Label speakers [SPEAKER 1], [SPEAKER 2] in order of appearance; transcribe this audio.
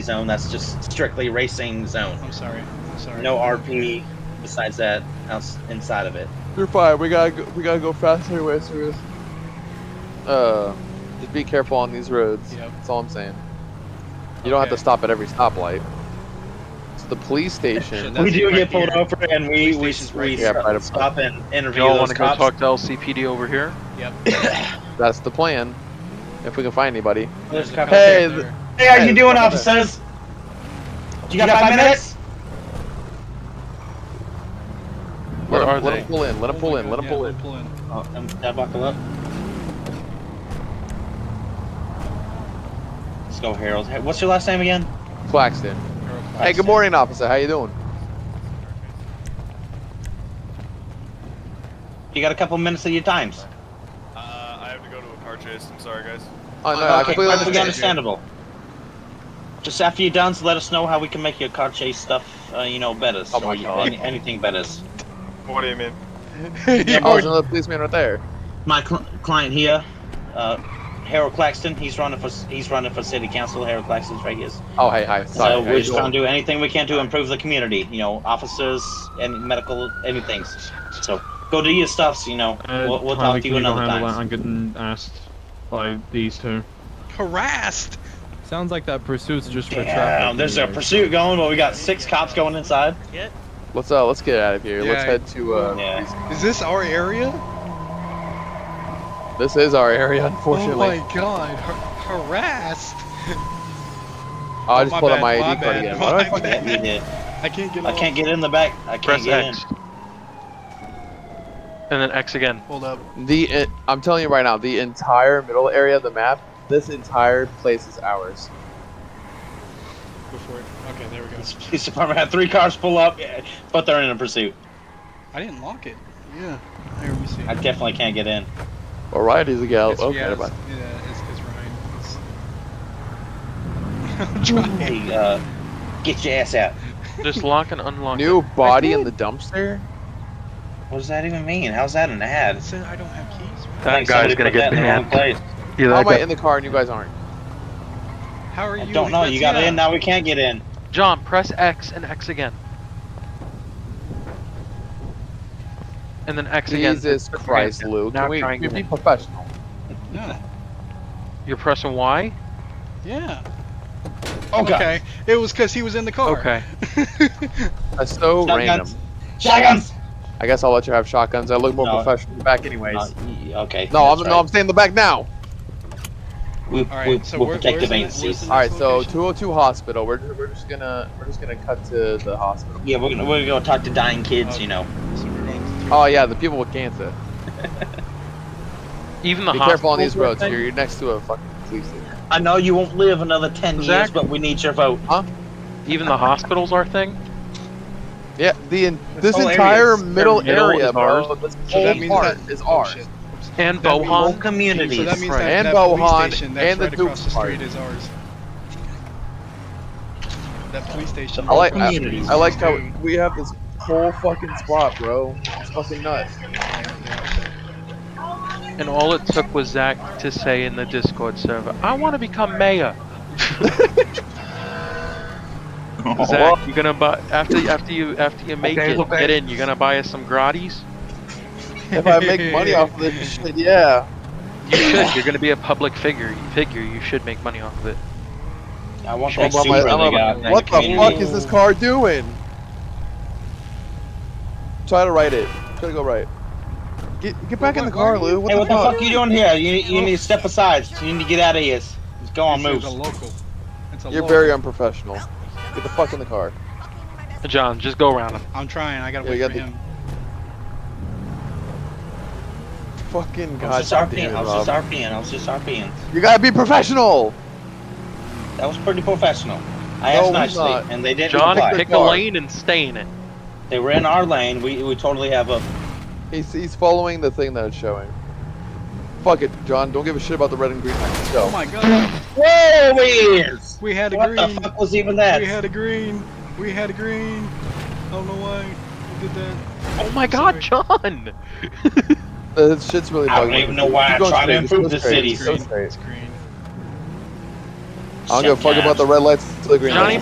[SPEAKER 1] zone. That's just strictly racing zone.
[SPEAKER 2] I'm sorry. I'm sorry.
[SPEAKER 1] No RP besides that outs- inside of it.
[SPEAKER 3] Through five, we gotta go, we gotta go faster anyway, so we just, uh, just be careful on these roads.
[SPEAKER 2] Yep.
[SPEAKER 3] That's all I'm saying. You don't have to
[SPEAKER 2] Okay.
[SPEAKER 3] stop at every stoplight. It's the police station.
[SPEAKER 2] That's
[SPEAKER 1] we do
[SPEAKER 2] right
[SPEAKER 1] get pulled
[SPEAKER 2] here.
[SPEAKER 1] over, and we we
[SPEAKER 2] Police
[SPEAKER 1] should
[SPEAKER 2] station's
[SPEAKER 1] we
[SPEAKER 3] right here. Yeah, right up-
[SPEAKER 1] stop and interview
[SPEAKER 4] Y'all want
[SPEAKER 1] those
[SPEAKER 4] to go
[SPEAKER 1] cops.
[SPEAKER 4] talk to LCPD over here?
[SPEAKER 2] Yep.
[SPEAKER 3] That's the plan. If we can find anybody.
[SPEAKER 1] There's
[SPEAKER 2] There's a
[SPEAKER 1] a
[SPEAKER 2] couple
[SPEAKER 1] cop
[SPEAKER 3] Hey,
[SPEAKER 2] there.
[SPEAKER 3] th-
[SPEAKER 1] Hey, how you doing, officers? You got five minutes?
[SPEAKER 4] Where
[SPEAKER 3] let
[SPEAKER 4] are
[SPEAKER 3] him, let
[SPEAKER 4] they?
[SPEAKER 3] 'em pull in. Let him
[SPEAKER 2] Oh
[SPEAKER 3] pull
[SPEAKER 2] my
[SPEAKER 3] in.
[SPEAKER 2] God,
[SPEAKER 3] Let him
[SPEAKER 2] yeah,
[SPEAKER 3] pull in.
[SPEAKER 2] Pull in.
[SPEAKER 1] Oh, um, did I buckle up. Let's go, Harold. Hey, What's your last name again?
[SPEAKER 3] Claxton.
[SPEAKER 2] Arrow
[SPEAKER 3] Hey, good
[SPEAKER 1] Claxton.
[SPEAKER 3] morning, officer. How you doing?
[SPEAKER 1] You got a couple minutes of your times.
[SPEAKER 5] Uh, I have to go to a car chase. I'm sorry, guys.
[SPEAKER 3] Oh no, I
[SPEAKER 1] okay,
[SPEAKER 3] completely
[SPEAKER 1] perfectly
[SPEAKER 3] understand.
[SPEAKER 1] understandable. Just after you're done, so let us know how we can make your car chase stuff, uh, you know, better.
[SPEAKER 3] Oh my
[SPEAKER 1] or
[SPEAKER 3] God.
[SPEAKER 1] any- anything better.
[SPEAKER 5] What do you mean?
[SPEAKER 3] Oh, there's another policeman right there.
[SPEAKER 1] My cl- client here, uh, Harold Claxton. He's running for he's running for city council. Harold Claxton's right here.
[SPEAKER 3] Oh, hey, hi. Sorry.
[SPEAKER 1] so
[SPEAKER 3] how
[SPEAKER 1] we're
[SPEAKER 3] you
[SPEAKER 1] just
[SPEAKER 3] doing?
[SPEAKER 1] trying to do anything we can to improve the community. You know, officers and medical, anything. So go do your stuffs. You know,
[SPEAKER 6] Uh,
[SPEAKER 1] we'll, we'll talk
[SPEAKER 6] Tyler,
[SPEAKER 1] to
[SPEAKER 6] can
[SPEAKER 1] you
[SPEAKER 6] go
[SPEAKER 1] another
[SPEAKER 6] handle that?
[SPEAKER 1] time.
[SPEAKER 6] I'm getting asked by these two.
[SPEAKER 2] Harassed.
[SPEAKER 6] Sounds like that pursuit's just for
[SPEAKER 1] Damn,
[SPEAKER 6] traffic.
[SPEAKER 1] there's a pursuit going, but we got six cops going inside.
[SPEAKER 3] Let's uh, let's get out of here. Let's
[SPEAKER 2] Yeah.
[SPEAKER 3] head to uh.
[SPEAKER 1] Yeah.
[SPEAKER 2] Is this our area?
[SPEAKER 3] This is our area, unfortunately.
[SPEAKER 2] Oh my god. Har- harassed.
[SPEAKER 3] Oh, I just
[SPEAKER 2] my
[SPEAKER 3] pulled
[SPEAKER 2] bad,
[SPEAKER 3] out my
[SPEAKER 2] my
[SPEAKER 3] ID card
[SPEAKER 2] bad,
[SPEAKER 3] again.
[SPEAKER 2] my
[SPEAKER 3] Why do I
[SPEAKER 2] bad.
[SPEAKER 3] fucking-
[SPEAKER 1] Yeah, you did.
[SPEAKER 2] I can't get.
[SPEAKER 1] I
[SPEAKER 2] off.
[SPEAKER 1] can't get in the back. I can't
[SPEAKER 4] Press
[SPEAKER 1] get
[SPEAKER 4] X.
[SPEAKER 1] in.
[SPEAKER 4] And then X again.
[SPEAKER 2] Hold up.
[SPEAKER 3] The en- I'm telling you right now, the entire middle area of the map, this entire place is ours.
[SPEAKER 2] Before. it- Okay, there we go.
[SPEAKER 1] This police department had three cars pull up, yeah, but they're in a pursuit.
[SPEAKER 2] I didn't lock it. Yeah. Here we see.
[SPEAKER 1] I Oh, definitely can't get in.
[SPEAKER 3] Alrighty, the gal.
[SPEAKER 2] It's-
[SPEAKER 3] Okay,
[SPEAKER 2] yeah,
[SPEAKER 3] never
[SPEAKER 2] it's,
[SPEAKER 3] mind.
[SPEAKER 2] yeah, it's, it's Ryan. It's... I'm trying.
[SPEAKER 1] Hey, uh, get your ass out.
[SPEAKER 4] Just lock and unlock.
[SPEAKER 3] New
[SPEAKER 4] it.
[SPEAKER 3] body in the dumpster.
[SPEAKER 1] What does that even mean? How's that an ad?
[SPEAKER 2] It said I don't have keys. man.
[SPEAKER 4] That
[SPEAKER 1] I think
[SPEAKER 4] guy's
[SPEAKER 1] somebody
[SPEAKER 4] gonna
[SPEAKER 1] put
[SPEAKER 4] get
[SPEAKER 1] that in the wrong
[SPEAKER 4] banned.
[SPEAKER 1] place.
[SPEAKER 4] Yeah,
[SPEAKER 3] How
[SPEAKER 4] that
[SPEAKER 3] am I
[SPEAKER 4] guy.
[SPEAKER 3] in the car and you guys aren't?
[SPEAKER 2] How are
[SPEAKER 1] I
[SPEAKER 2] you?
[SPEAKER 1] don't know. You got
[SPEAKER 2] Ignacio?
[SPEAKER 1] in, now we can't get in.
[SPEAKER 4] John, press X and X again. And then X again.
[SPEAKER 3] Jesus
[SPEAKER 4] Press
[SPEAKER 3] Christ,
[SPEAKER 4] again.
[SPEAKER 3] Luke.
[SPEAKER 4] Now
[SPEAKER 3] Can we, can we
[SPEAKER 4] triangle.
[SPEAKER 3] be professional?
[SPEAKER 2] No.
[SPEAKER 4] You're pressing Y.
[SPEAKER 2] Yeah.
[SPEAKER 1] Oh, God.
[SPEAKER 2] Okay. It was because he was in the car.
[SPEAKER 4] Okay.
[SPEAKER 3] That's so random.
[SPEAKER 1] Shotguns. Shotguns!
[SPEAKER 3] I guess I'll let you have shotguns. I look more
[SPEAKER 1] No.
[SPEAKER 3] professional in the back, anyways.
[SPEAKER 1] Uh, y- okay.
[SPEAKER 3] no, I'm
[SPEAKER 1] that's
[SPEAKER 3] no,
[SPEAKER 1] right.
[SPEAKER 3] I'm staying in the back now.
[SPEAKER 1] We,
[SPEAKER 2] All right,
[SPEAKER 1] we,
[SPEAKER 2] so
[SPEAKER 1] we'll
[SPEAKER 2] where-
[SPEAKER 1] protect the
[SPEAKER 2] where's the-
[SPEAKER 1] vacancies.
[SPEAKER 2] where's
[SPEAKER 3] All right, so
[SPEAKER 2] location.
[SPEAKER 3] 202 hospital. We're, we're just gonna we're just gonna cut to the hospital.
[SPEAKER 1] Yeah, we're gonna, we're gonna talk to dying kids, you know.
[SPEAKER 2] So we're going
[SPEAKER 4] Mm.
[SPEAKER 2] through-
[SPEAKER 3] Oh yeah, the people with cancer.
[SPEAKER 4] Even the
[SPEAKER 3] Be careful
[SPEAKER 4] hospital.
[SPEAKER 3] on these
[SPEAKER 4] were
[SPEAKER 3] roads.
[SPEAKER 4] saying-
[SPEAKER 3] You're, you're next to a fucking police station.
[SPEAKER 1] I know you won't live another 10 years,
[SPEAKER 4] Zach?
[SPEAKER 1] but we need your vote.
[SPEAKER 4] Even the hospitals are thing.
[SPEAKER 3] Yeah, the en- this
[SPEAKER 1] whole
[SPEAKER 3] entire
[SPEAKER 1] area is-
[SPEAKER 3] middle,
[SPEAKER 4] middle
[SPEAKER 3] area,
[SPEAKER 4] is
[SPEAKER 3] bro.
[SPEAKER 4] ours.
[SPEAKER 3] This
[SPEAKER 2] So that
[SPEAKER 3] whole
[SPEAKER 2] means
[SPEAKER 3] part
[SPEAKER 2] that-
[SPEAKER 3] is
[SPEAKER 2] oh,
[SPEAKER 3] ours.
[SPEAKER 2] shit. Oops.
[SPEAKER 4] And
[SPEAKER 2] That means-
[SPEAKER 1] Whole
[SPEAKER 4] Bohan.
[SPEAKER 1] communities.
[SPEAKER 2] Um, So that means
[SPEAKER 4] Right.
[SPEAKER 2] that,
[SPEAKER 3] And
[SPEAKER 2] that police
[SPEAKER 3] Bohan
[SPEAKER 2] station that's
[SPEAKER 3] and the
[SPEAKER 2] right across the
[SPEAKER 3] Duke
[SPEAKER 2] street
[SPEAKER 3] part.
[SPEAKER 2] is ours. That police station.
[SPEAKER 3] I like
[SPEAKER 2] across the
[SPEAKER 1] communities.
[SPEAKER 2] street
[SPEAKER 3] I
[SPEAKER 2] is
[SPEAKER 3] like how
[SPEAKER 2] Duke.
[SPEAKER 3] we have this whole fucking spot, bro. It's fucking nuts.
[SPEAKER 4] And all it took was Zach to say in the Discord server, "I want to become mayor." Zach, you're gonna buy after after you after you make
[SPEAKER 6] Okay,
[SPEAKER 4] it
[SPEAKER 6] okay.
[SPEAKER 4] get in. You're gonna buy us some gratis.
[SPEAKER 3] If I make money off of this shit, yeah.
[SPEAKER 4] You should. You're gonna be a public figure. Figure. You should make money off of it.
[SPEAKER 1] I want
[SPEAKER 3] I'm
[SPEAKER 1] that
[SPEAKER 3] about my-
[SPEAKER 1] zebra
[SPEAKER 3] I'm
[SPEAKER 1] they
[SPEAKER 3] about-
[SPEAKER 1] got in
[SPEAKER 3] what the
[SPEAKER 1] uh, community.
[SPEAKER 3] fuck is this car doing? Try to right it. Try to go right. Get get back in the car, Lou. What
[SPEAKER 1] Hey,
[SPEAKER 3] the
[SPEAKER 1] what the
[SPEAKER 3] fuck?
[SPEAKER 1] fuck you doing here? You, you need to step aside. You need to get out of here. Just go on,
[SPEAKER 2] This
[SPEAKER 1] move.
[SPEAKER 2] is a local. It's a
[SPEAKER 3] You're
[SPEAKER 2] local.
[SPEAKER 3] very unprofessional. Get the fuck in the car.
[SPEAKER 4] John, just go around him.
[SPEAKER 2] I'm trying. I gotta
[SPEAKER 3] Yeah,
[SPEAKER 2] wait for
[SPEAKER 3] you got
[SPEAKER 2] him.
[SPEAKER 3] Fucking
[SPEAKER 1] I was
[SPEAKER 3] god
[SPEAKER 1] just RPing.
[SPEAKER 3] damn
[SPEAKER 1] I
[SPEAKER 3] it,
[SPEAKER 1] was just
[SPEAKER 3] Rob.
[SPEAKER 1] RPing. I was just RPing.
[SPEAKER 3] You gotta be professional.
[SPEAKER 1] That was pretty professional. I
[SPEAKER 3] No,
[SPEAKER 1] asked
[SPEAKER 3] we're
[SPEAKER 1] nicely,
[SPEAKER 3] not.
[SPEAKER 1] and they didn't
[SPEAKER 4] John,
[SPEAKER 1] reply.
[SPEAKER 4] pick a
[SPEAKER 3] Car.
[SPEAKER 4] lane and stay in it.
[SPEAKER 1] They were in our lane. We, we totally have a.
[SPEAKER 3] He's, he's following the thing that it's showing. Fuck it, John. Don't give a shit about the red and green. Let's
[SPEAKER 2] Oh
[SPEAKER 3] go.
[SPEAKER 2] my god.
[SPEAKER 1] Whoa, is!
[SPEAKER 2] We had a
[SPEAKER 1] What the
[SPEAKER 2] green.
[SPEAKER 1] fuck was even that?
[SPEAKER 2] We had a green. We had a green. I don't know why we did that.
[SPEAKER 4] Oh my God, John!
[SPEAKER 3] Uh, This shit's really
[SPEAKER 1] I
[SPEAKER 3] bugging
[SPEAKER 1] don't
[SPEAKER 3] me.
[SPEAKER 1] even know why
[SPEAKER 3] Keep
[SPEAKER 1] I'm
[SPEAKER 3] going
[SPEAKER 1] trying to
[SPEAKER 3] straight, just go
[SPEAKER 1] improve the
[SPEAKER 3] straight,
[SPEAKER 1] city.
[SPEAKER 3] just go
[SPEAKER 2] It's green.
[SPEAKER 3] straight.
[SPEAKER 2] It's green.
[SPEAKER 3] I don't give a fuck about the red lights until the green
[SPEAKER 1] Johnny
[SPEAKER 3] lights.